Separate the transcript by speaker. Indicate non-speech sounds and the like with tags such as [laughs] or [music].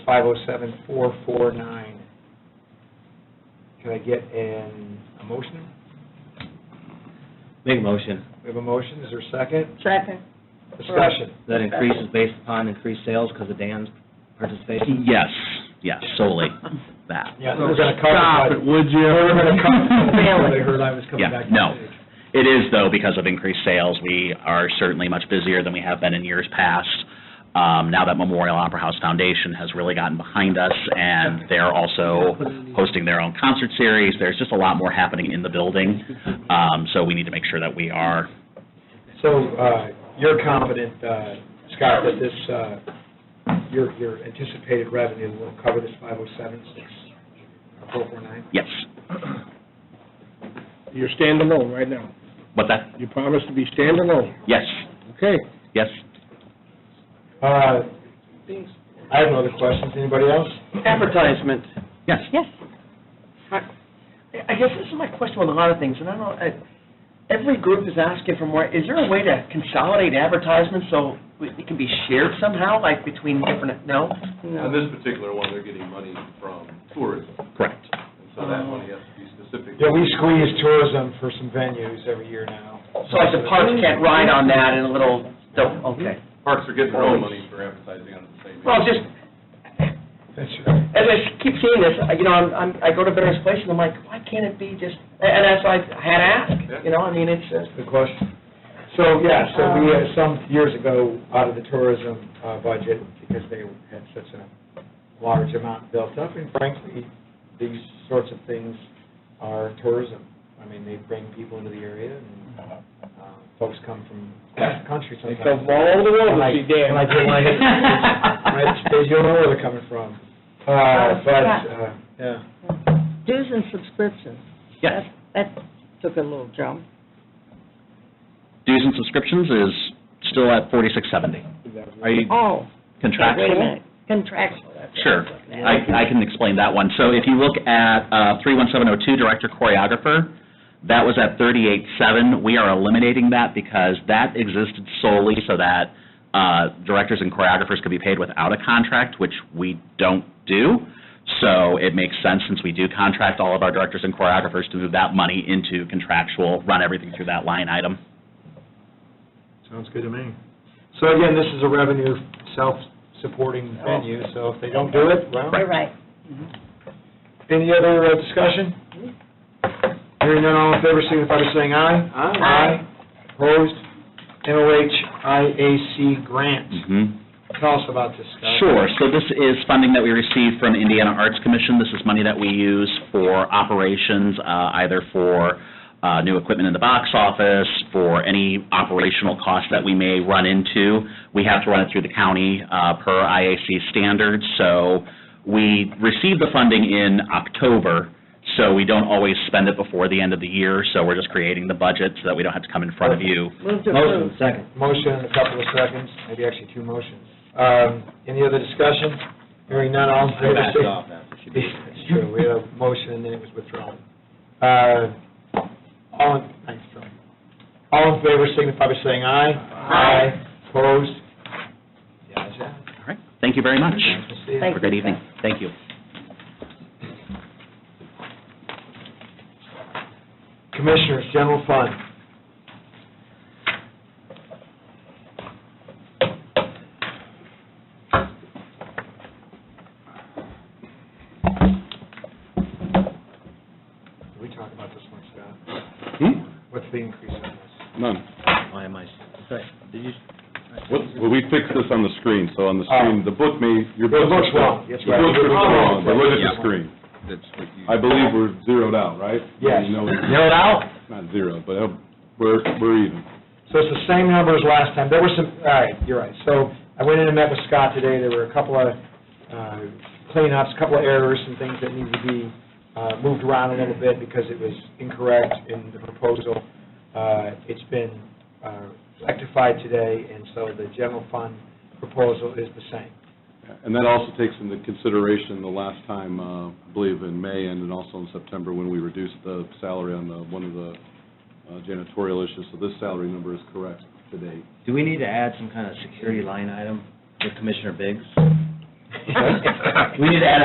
Speaker 1: five oh seven four four nine. Can I get an, a motion?
Speaker 2: Make a motion.
Speaker 1: We have a motion, is there a second?
Speaker 3: Second.
Speaker 1: Discussion.
Speaker 2: That increase is based upon increased sales because of Dan's
Speaker 4: [laughs]
Speaker 2: participation?
Speaker 4: Yes, yes, solely that.
Speaker 1: Yeah,
Speaker 5: So
Speaker 1: we're gonna cover.
Speaker 5: Stop it, would you?
Speaker 1: We're gonna
Speaker 5: [laughs]
Speaker 1: cover,
Speaker 3: Really?
Speaker 1: they heard I was coming
Speaker 4: Yeah,
Speaker 1: back. to
Speaker 4: no.
Speaker 1: the stage.
Speaker 4: It is, though, because of increased sales, we are certainly much busier than we have been in years past. Um, Now that Memorial Opera House Foundation has really gotten behind us, and they're also hosting their own concert series, there's just a lot more happening in the building, Um, so we need to make sure that we are,
Speaker 1: So, uh, you're confident, uh, Scott, that this, uh, your, your anticipated revenue will cover this five oh seven six four four nine?
Speaker 4: yes,
Speaker 5: You're standalone right now.
Speaker 4: but that,
Speaker 5: You promised to be standalone.
Speaker 4: yes,
Speaker 5: Okay.
Speaker 4: yes.
Speaker 1: Uh, I have no other questions, anybody else?
Speaker 6: Advertisement.
Speaker 4: Yes.
Speaker 3: Yes.
Speaker 6: I guess this is my question on a lot of things, and I don't, I, every group is asking for more. Is there a way to consolidate advertisements so it can be shared somehow, like between different, no?
Speaker 7: On this particular one, they're getting money from tourism,
Speaker 4: Correct.
Speaker 7: and so that money has to be specific.
Speaker 1: Yeah, we squeeze tourism for some venues every year now.
Speaker 6: So like the parks can't ride on that and a little, so, okay.
Speaker 7: Parks are getting their own money for advertising on the same.
Speaker 6: Well, just,
Speaker 1: That's right.
Speaker 6: as I keep seeing this, I- you know, I'm, I'm, I go to various places, and I'm like, why can't it be just, and that's why I had asked, you know, I mean, it's, uh,
Speaker 1: Good question. So, yeah, so we, uh, some years ago, out of the tourism uh, budget, because they had such a large amount built up, and frankly, these sorts of things are tourism. I mean, they bring people into the area, and uh, folks come from [coughs] across the country
Speaker 5: They
Speaker 1: sometimes.
Speaker 5: come all over the world
Speaker 1: When I-
Speaker 5: to see Dan.
Speaker 1: when I did
Speaker 5: [laughs]
Speaker 1: my- Right, They don't know where they're coming from. Uh, But, uh, yeah.
Speaker 3: Dues and subscriptions.
Speaker 4: Yes.
Speaker 3: That that took a little jump.
Speaker 4: Dues and subscriptions is still at 4670. Are you
Speaker 3: Oh,
Speaker 4: contractual?
Speaker 3: wait a minute, contractual. that's what
Speaker 4: Sure.
Speaker 3: I'm looking at.
Speaker 4: I, I can explain that one. So if you look at uh, 31702, Director Choreographer, that was at 38.7. We are eliminating that because that existed solely so that uh, directors and choreographers could be paid without a contract, which we don't do. So it makes sense, since we do contract all of our directors and choreographers, to move that money into contractual, run everything through that line item.
Speaker 1: Sounds good to me. So again, this is a revenue self-supporting venue, so if they don't do it, Oh. well,
Speaker 3: You're right.
Speaker 1: any other uh, discussion? Hearing none, all in favor, signify by saying aye.
Speaker 3: Aye.
Speaker 1: Opposed? MOH IAC grant.
Speaker 4: Mm-hmm.
Speaker 1: Tell us about this, Scott.
Speaker 4: Sure, so this is funding that we received from Indiana Arts Commission. This is money that we use for operations, uh, either for uh, new equipment in the box office, for any operational costs that we may run into. We have to run it through the county uh, per IAC standards, so we received the funding in October, so we don't always spend it before the end of the year, so we're just creating the budget so that we don't have to come in front of you.
Speaker 3: Move to
Speaker 1: Motion,
Speaker 3: approve.
Speaker 1: second. Motion in a couple of seconds, maybe actually two motions. Um, Any other discussion? Hearing none, all in favor,
Speaker 2: Backed
Speaker 1: sig-
Speaker 2: off after she did it.
Speaker 1: It's true, we had a motion and then it was withdrawn. Uh, All, in- thanks, Charlie. All in favor signify by saying aye. Aye. Opposed? The ayes have it.
Speaker 4: All right, thank you very much.
Speaker 1: Nice to see you.
Speaker 3: Thank
Speaker 4: Have a great evening. Thank you.
Speaker 1: Commissioners, general fund. Did we talk about this one, Scott? What's the increase on this?
Speaker 8: None.
Speaker 2: Why am I, sorry, did you,
Speaker 8: What, well, we fixed this on the screen, so on the screen, the book may, your
Speaker 1: Ah. The
Speaker 8: book...
Speaker 1: book's wrong.
Speaker 8: The
Speaker 1: Yes,
Speaker 8: book
Speaker 1: right.
Speaker 8: was wrong, but look at the screen.
Speaker 5: That's what you.
Speaker 8: I believe we're zeroed out, right?
Speaker 1: Yes.
Speaker 8: You know,
Speaker 1: Zeroed out?
Speaker 8: Not zero, but uh, we're, we're even.
Speaker 1: So it's the same number as last time. There were some, all right, you're right. So I went in and met with Scott today. There were a couple of uh, cleanups, a couple of errors and things that needed to be uh, moved around a little bit because it was incorrect in the proposal. Uh, It's been uh, rectified today, and so the general fund proposal is the same.
Speaker 8: And that also takes into consideration the last time, uh, I believe in May and then also in September, when we reduced the salary on the, one of the uh, janitorial issues, so this salary number is correct today.
Speaker 2: [laughs] do we need to add some kind of security line item for Commissioner Biggs? We need to add